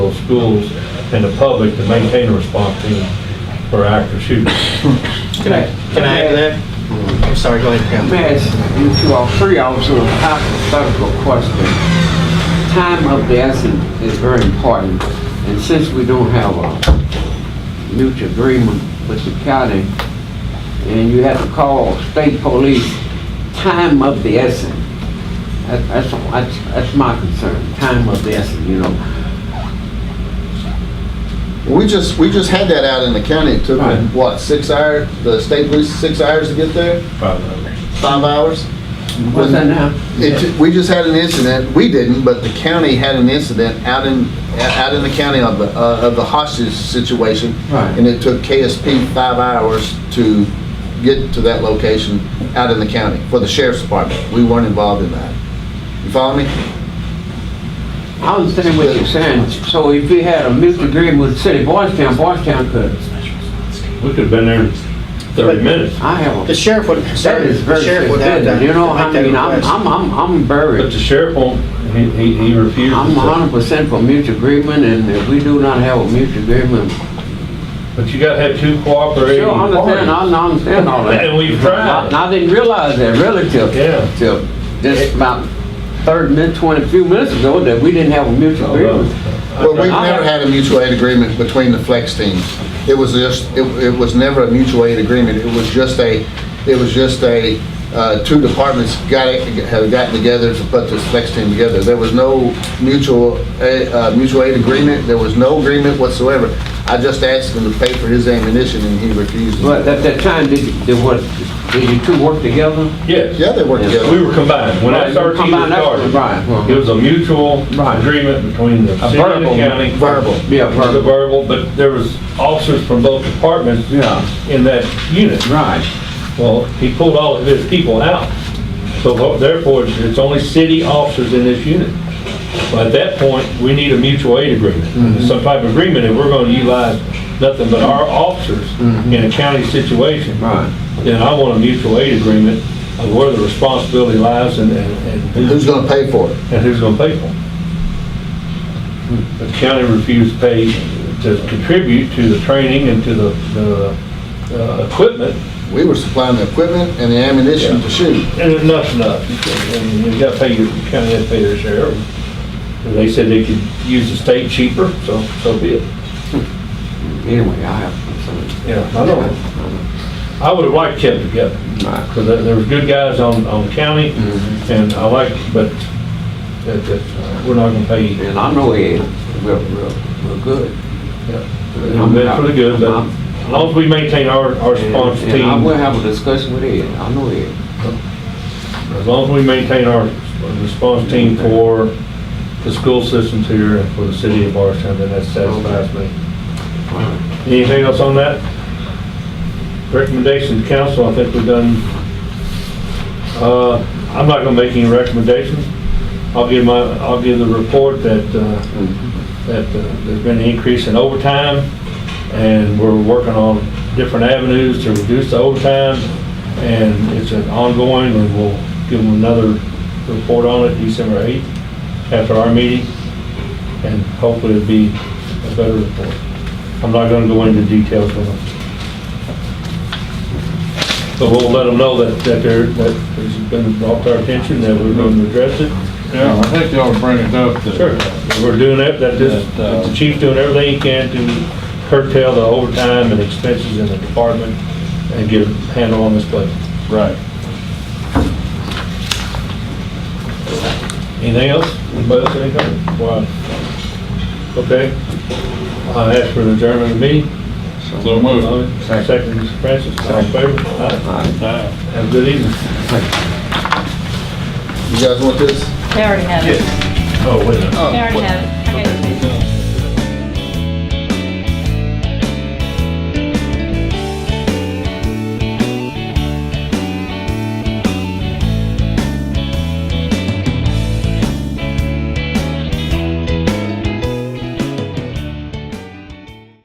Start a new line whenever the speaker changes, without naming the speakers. schools and the public to maintain a response team for active shooters.
Can I, can I add to
Mm-hmm.
that? I'm sorry, go ahead, Pam.
Let me ask you two or three officers a hypothetical question. Time of the essence is very important, and since we don't have a mutual agreement with the county, and you have to call state police, time of the essence. That- That's, that's, that's my concern, time of the essence, you know.
We just, we just had that out in the county. It took,
Right.
them, what, six hours, the state police, six hours to get there?
Five hours.
Five hours?
What's that now?
It ju- We just had an incident, we didn't, but the county had an incident out in, out in the county of the, uh, of the hostage situation.
Right.
And it took KSP five hours to get to that location out in the county for the sheriff's department. We weren't involved in that. You follow me?
I understand what you're saying, so if we had a mutual agreement with the city of Boystown, Boystown could,
We could have been there in 30 minutes.
I have a
The sheriff would,
That
sorry,
is
the
very
sheriff would have
forbidden,
to.
you know,
to make
I
that
mean, I'm,
request.
I'm, I'm I'm
But
buried.
the sheriff won't, he, he he refused.
I'm
to-
hundred percent for mutual agreement, and if we do not have a mutual agreement,
But you gotta have two cooperating
sure, I understand, I
parties.
I understand all that.
And we've tried.
And I didn't realize that really till,
Yeah.
till just about thirty minutes, twenty, few minutes ago, that we didn't have a
Oh,
mutual agreement.
Well, we've never had a mutual aid agreement between the flex teams. It was just, it, it was never a mutual aid agreement, it was just a, it was just a, uh, two departments got, it- have gotten together to put this flex team together. There was no mutual, a- uh, mutual aid agreement, there was no agreement whatsoever. I just asked him to pay for his ammunition and he refused.
But at that time, did, you- did what, did you two work together?
Yes,
Yeah, they worked together.
we were combined. When I
Right,
started, he was
combined, that's right, right.
started. It was a mutual
Right.
agreement between the city and the
verbal-
county.
verbal.
Yeah,
It was a
verbal.
verbal, but there was officers from both departments
Yeah,
in that unit.
right.
Well, he pulled all of his people out. So tho- therefore, it's- it's only city officers in this unit. But at that point, we need a mutual aid agreement, some type of agreement, and we're gonna utilize nothing but our officers in a county situation.
Right.
Then I want a mutual aid agreement of where the responsibility lies and, and- and
Who's
who's,
gonna pay for it?
and who's gonna pay for it. But the county refused to pay, to contribute to the training and to the, the, uh, equipment
We were supplying the equipment and the ammunition to shoot.
And enough's enough. And you gotta pay your, county has to pay their share. And They said they could use the state cheaper, so, so be it.
Anyway, I have concerns.
Yeah, I know. I would've liked kept together,
Right.
because there there was good guys on, on county,
Mm-hmm.
and I like, but that, that, uh, we're not gonna pay you.
And I know Ed, we're, we're, we're good.
That's pretty good, but as long as we maintain our, our
And-
response
And I will
team,
have a discussion with Ed, I know Ed.
as long as we maintain our response team for the school systems here and for the city of Barstown, then that satisfies me. Anything else on that? Recommendations, council, I think we've done, uh, I'm not gonna make any recommendations. I'll give my, I'll give the report that, uh, that uh, there's been an increase in overtime, and we're working on different avenues to reduce the overtime, and it's an ongoing, and we'll give them another report on it December 8th after our meeting, and hopefully it'll be a better report. I'm not gonna go into details on it. But we'll let them know that, that they're, that it's been brought to our attention, that we're gonna address it.
Yeah, I think y'all were bringing up uh, that.
Sure, we're doing that, that this, that the chief's doing everything he can to curtail the overtime and expenses in the department and get a handle on this place.
Right.
Anything else? Anybody else have anything? Wow. Okay. I ask for an adjournment of the meeting.
So moved.
Second, Mr. Francis, all in favor? Aye. Have a good evening.
You guys want this?
They already have it.
Oh, wait a minute.
They already have it. I got it.